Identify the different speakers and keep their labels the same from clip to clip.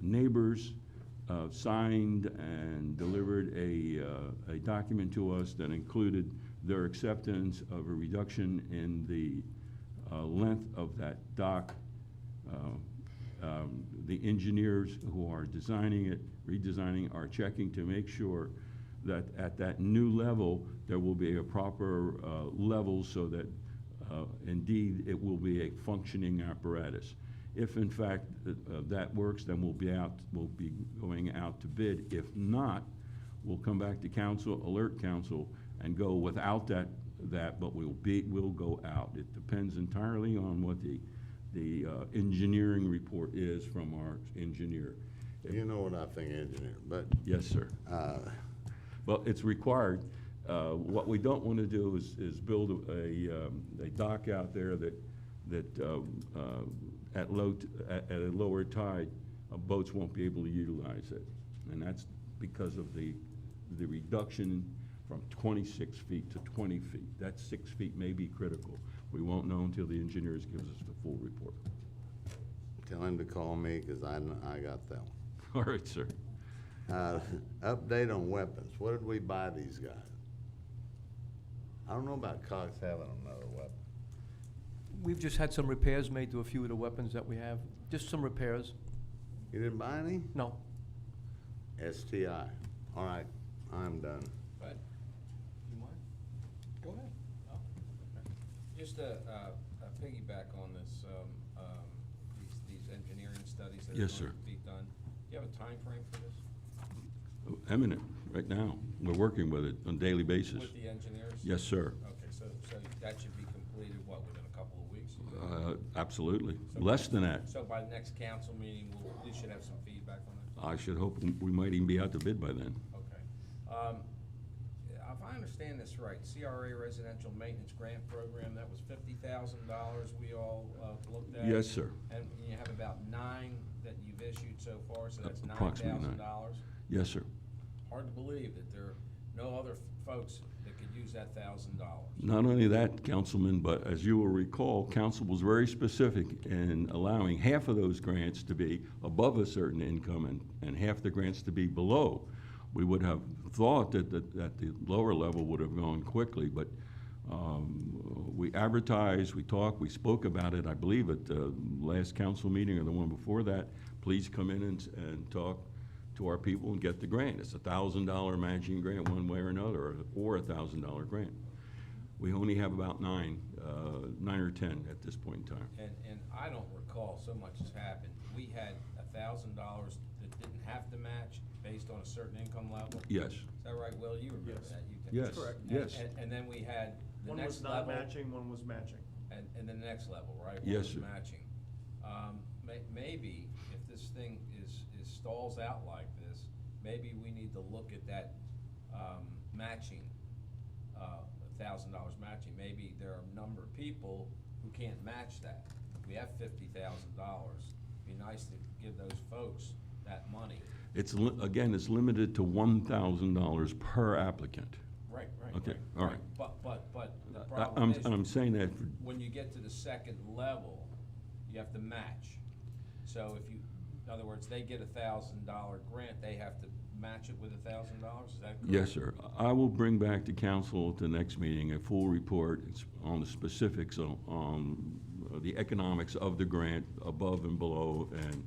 Speaker 1: neighbors uh, signed and delivered a, uh, a document to us that included their acceptance of a reduction in the uh, length of that dock. Uh, um, The engineers who are designing it, redesigning, are checking to make sure that at that new level, there will be a proper uh, level so that uh, indeed, it will be a functioning apparatus. If in fact uh, uh, that works, then we'll be out, we'll be going out to bid. If not, we'll come back to council, alert council, and go without that, that, but we'll be, we'll go out. It depends entirely on what the, the uh, engineering report is from our engineer.
Speaker 2: You know what I think, engineer, but,
Speaker 1: Yes, sir.
Speaker 2: uh,
Speaker 1: Well, it's required. Uh, What we don't want to do is, is build a- a, um, a dock out there that, that um, uh, at low, t- at at a lower tide, uh, boats won't be able to utilize it. And that's because of the, the reduction from 26 feet to 20 feet. That six feet may be critical. We won't know until the engineers gives us the full report.
Speaker 2: tell him to call me, because I, kn- I got that one.
Speaker 1: All right, sir.
Speaker 2: Uh, Update on weapons, what did we buy these guys? I don't know about Cox having another weapon.
Speaker 3: We've just had some repairs made to a few of the weapons that we have, just some repairs.
Speaker 2: You didn't buy any?
Speaker 3: No,
Speaker 2: STI, all right, I'm done.
Speaker 4: Bud, you mind?
Speaker 5: Go ahead.
Speaker 4: Just to uh, uh, piggyback on this, um, um, these- these engineering studies that are
Speaker 1: Yes,
Speaker 4: going
Speaker 1: sir.
Speaker 4: to be done, do you have a time frame for this?
Speaker 1: Eminent, right now. We're working with it on a daily basis.
Speaker 4: With the engineers?
Speaker 1: Yes, sir.
Speaker 4: Okay, so, so that should be completed, what, within a couple of weeks?
Speaker 1: Uh, Absolutely. Less than that.
Speaker 4: So by the next council meeting, we'll, we should have some feedback on it?
Speaker 1: I should hope we might even be out to bid by then.
Speaker 4: Okay. Um, If I understand this right, CRA Residential Maintenance Grant Program, that was fifty thousand dollars we all uh, looked at?
Speaker 1: Yes, sir.
Speaker 4: And you have about nine that you've issued so far, so that's nine
Speaker 1: Approximately
Speaker 4: thousand
Speaker 1: nine.
Speaker 4: dollars.
Speaker 1: Yes, sir.
Speaker 4: Hard to believe that there are no other folks that could use that thousand dollars.
Speaker 1: Not only that, Councilman, but as you will recall, council was very specific in allowing half of those grants to be above a certain income and, and half the grants to be below. We would have thought that, that, that the lower level would have gone quickly, but, um, we advertised, we talked, we spoke about it, I believe, at the last council meeting or the one before that. Please come in and, and talk to our people and get the grant. It's a thousand dollar matching grant one way or another, or a thousand dollar grant. We only have about nine, uh, nine or ten at this point in time.
Speaker 4: And, and I don't recall so much has happened. We had a thousand dollars that didn't have to match based on a certain income level.
Speaker 1: Yes,
Speaker 4: Is that right, Will? You remember that? you did.
Speaker 1: Yes, Correct. yes.
Speaker 4: And, and then we had the
Speaker 6: One was
Speaker 4: next
Speaker 6: not
Speaker 4: level,
Speaker 6: matching, one was matching.
Speaker 4: and, and then the next level, right? One
Speaker 1: Yes,
Speaker 4: was
Speaker 1: sir.
Speaker 4: Matching. Um, may, maybe if this thing is, is stalls out like this, maybe we need to look at that, um, matching, uh, thousand dollars matching. Maybe there are a number of people who can't match that. We have fifty thousand dollars. Be nice to give those folks that money.
Speaker 1: it's, li- again, it's limited to one thousand dollars per applicant.
Speaker 4: Right, right,
Speaker 1: Okay,
Speaker 4: right,
Speaker 1: all right.
Speaker 4: But, but, but the
Speaker 1: I-
Speaker 4: problem
Speaker 1: I'm,
Speaker 4: is,
Speaker 1: I'm saying that, for-
Speaker 4: when you get to the second level, you have to match. So if you, in other words, they get a thousand dollar grant, they have to match it with a thousand dollars, is that correct?
Speaker 1: yes, sir. I will bring back to council at the next meeting a full report on the specifics on, on uh, the economics of the grant, above and below, and,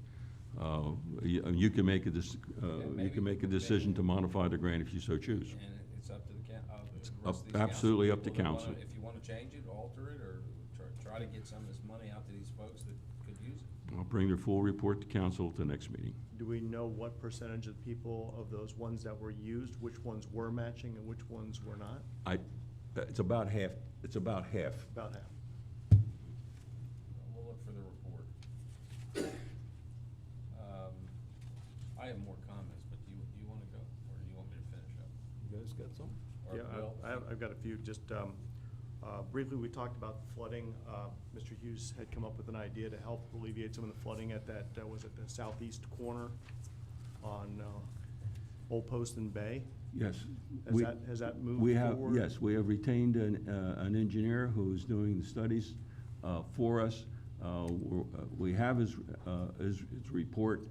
Speaker 1: uh, you, you can make a, dis- uh, you
Speaker 4: maybe-
Speaker 1: can make a decision to modify the grant if you so choose.
Speaker 4: And it- it's up to the coun, uh, the rest
Speaker 1: up-
Speaker 4: of these council
Speaker 1: absolutely up to
Speaker 4: people that wanna-
Speaker 1: council.
Speaker 4: If you wanna change it, alter it, or try, try to get some of this money out to these folks that could use it.
Speaker 1: I'll bring the full report to council at the next meeting.
Speaker 6: Do we know what percentage of people of those ones that were used, which ones were matching and which ones were not?
Speaker 1: I, uh, it's about half, it's about half.
Speaker 6: About half.
Speaker 4: We'll look for the report. Um, I have more comments, but do you, do you wanna go, or do you want me to finish up?
Speaker 5: You guys got some?
Speaker 4: Or
Speaker 6: Yeah, I-
Speaker 4: Will?
Speaker 6: I have- I've got a few, just um, uh, briefly, we talked about flooding. Uh, Mr. Hughes had come up with an idea to help alleviate some of the flooding at that, uh, was it the southeast corner on uh, Old Poston Bay?
Speaker 1: Yes.
Speaker 6: Has
Speaker 1: we-
Speaker 6: that- has that moved
Speaker 1: We have,
Speaker 6: forward?
Speaker 1: yes, we have retained an, uh, an engineer who's doing the studies uh, for us. Uh, we're- uh, We have his, uh, his his report